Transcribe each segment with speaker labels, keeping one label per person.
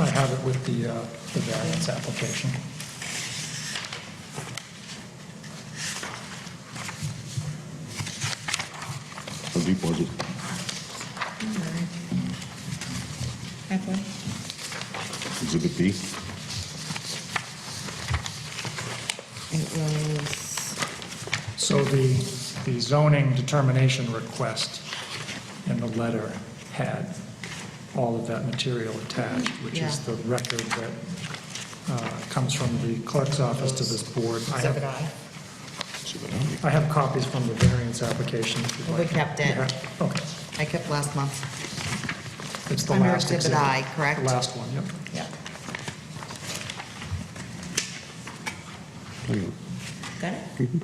Speaker 1: I have it with the, uh, the variance application.
Speaker 2: How deep was it?
Speaker 3: Halfway.
Speaker 2: Exhibit B?
Speaker 3: It was,
Speaker 1: So the, the zoning determination request in the letter had all of that material attached, which is
Speaker 3: Yeah.
Speaker 1: the record that uh, comes from the clerk's office to this board. I
Speaker 3: so did
Speaker 1: have,
Speaker 3: I.
Speaker 2: Exhibit A.
Speaker 1: I have copies from the variance application. if you'd
Speaker 3: We
Speaker 1: like.
Speaker 3: kept it.
Speaker 1: You have- Okay,
Speaker 3: I kept last month.
Speaker 1: it's the
Speaker 3: Under
Speaker 1: last
Speaker 3: exhibit
Speaker 1: exhibit.
Speaker 3: I, correct?
Speaker 1: The last one, yep.
Speaker 3: Yeah. Got it?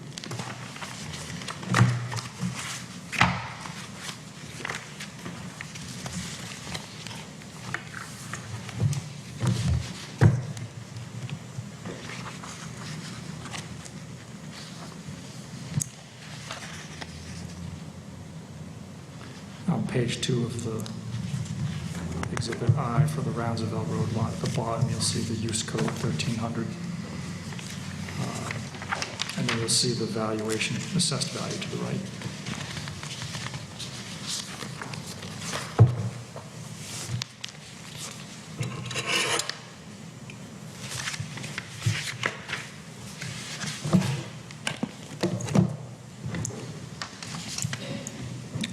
Speaker 1: On page two of the exhibit I for the Roundsville Road lot, at the bottom, you'll see the use code 1300. Uh, And then you'll see the valuation, assessed value to the right.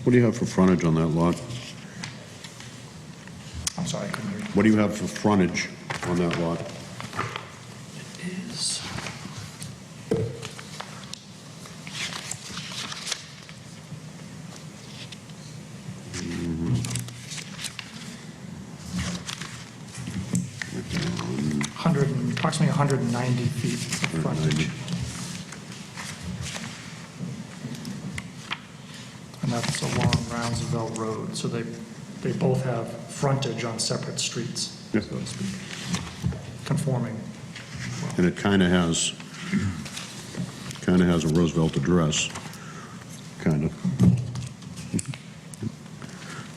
Speaker 2: What do you have for frontage on that lot?
Speaker 1: I'm sorry, I couldn't hear you.
Speaker 2: What do you have for frontage on that lot?
Speaker 1: Is, Hundred, and- approximately 190 feet of frontage. And that's along Roundsville Road, so they, they both have frontage on separate streets, so
Speaker 2: Yes.
Speaker 1: to speak, conforming.
Speaker 2: And it kind of has, kind of has a Roosevelt address, kind of.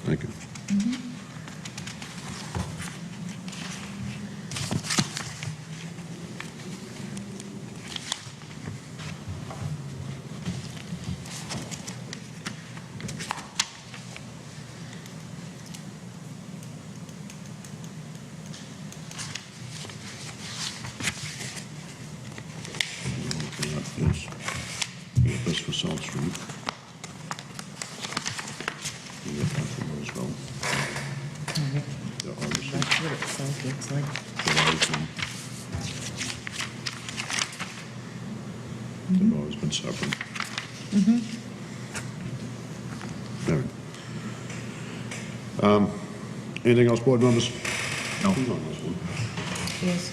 Speaker 2: Thank you. Looking at This You got this for South Street. You got that for Roosevelt. They're obviously-
Speaker 3: That's what it sounds it's like.
Speaker 2: They've always been- they've always been separate. All right. Um, Anything else, board members? No. Who's on this one?
Speaker 3: Yes,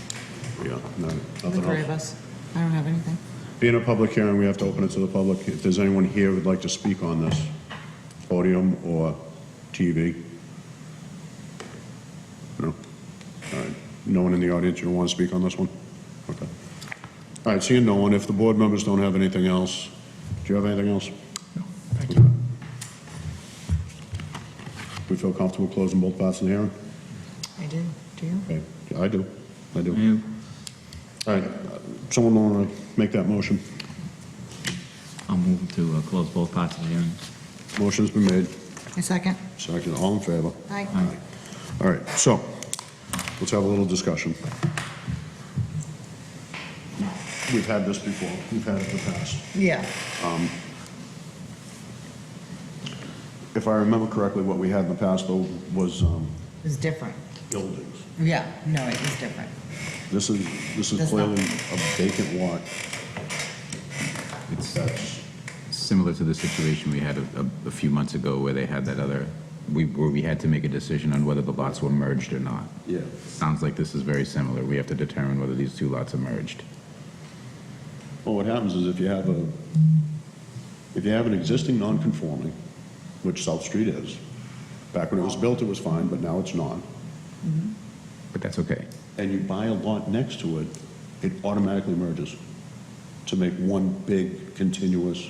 Speaker 2: Yeah, no,
Speaker 3: the
Speaker 2: nothing
Speaker 3: three of
Speaker 2: else.
Speaker 3: us. I don't have anything.
Speaker 2: Being a public hearing, we have to open it to the public. If there's anyone here who'd like to speak on this, podium or TV? No? All right. No one in the audience, you don't want to speak on this one? Okay. All right, seeing no one, if the board members don't have anything else, do you have anything else?
Speaker 1: No, Thank you.
Speaker 2: We feel comfortable closing both parts of the hearing?
Speaker 3: I do. Do you?
Speaker 2: Okay, I do, I
Speaker 4: Mm.
Speaker 2: do. All right, someone want to make that motion?
Speaker 5: I'll move to uh, close both parts of the hearing.
Speaker 2: Motion's been made,
Speaker 3: A second?
Speaker 2: second, all in favor?
Speaker 3: Aye.
Speaker 2: All right, so, let's have a little discussion. We've had this before, we've had it in the past.
Speaker 3: Yeah.
Speaker 2: If I remember correctly, what we had in the past, though, was um,
Speaker 3: It's different.
Speaker 2: buildings.
Speaker 3: Yeah, no, it was different.
Speaker 2: This is, this is
Speaker 3: That's not-
Speaker 2: clearly a vacant lot.
Speaker 4: It's
Speaker 2: That's,
Speaker 4: similar to the situation we had a, a- a few months ago where they had that other, we, where we had to make a decision on whether the lots were merged or not.
Speaker 2: yeah,
Speaker 4: Sounds like this is very similar. We have to determine whether these two lots are merged.
Speaker 2: well, what happens is if you have a, if you have an existing non-conforming, which South Street is, back when it was built, it was fine, but now it's not.
Speaker 4: But that's okay.
Speaker 2: and you buy a lot next to it, it automatically merges to make one big continuous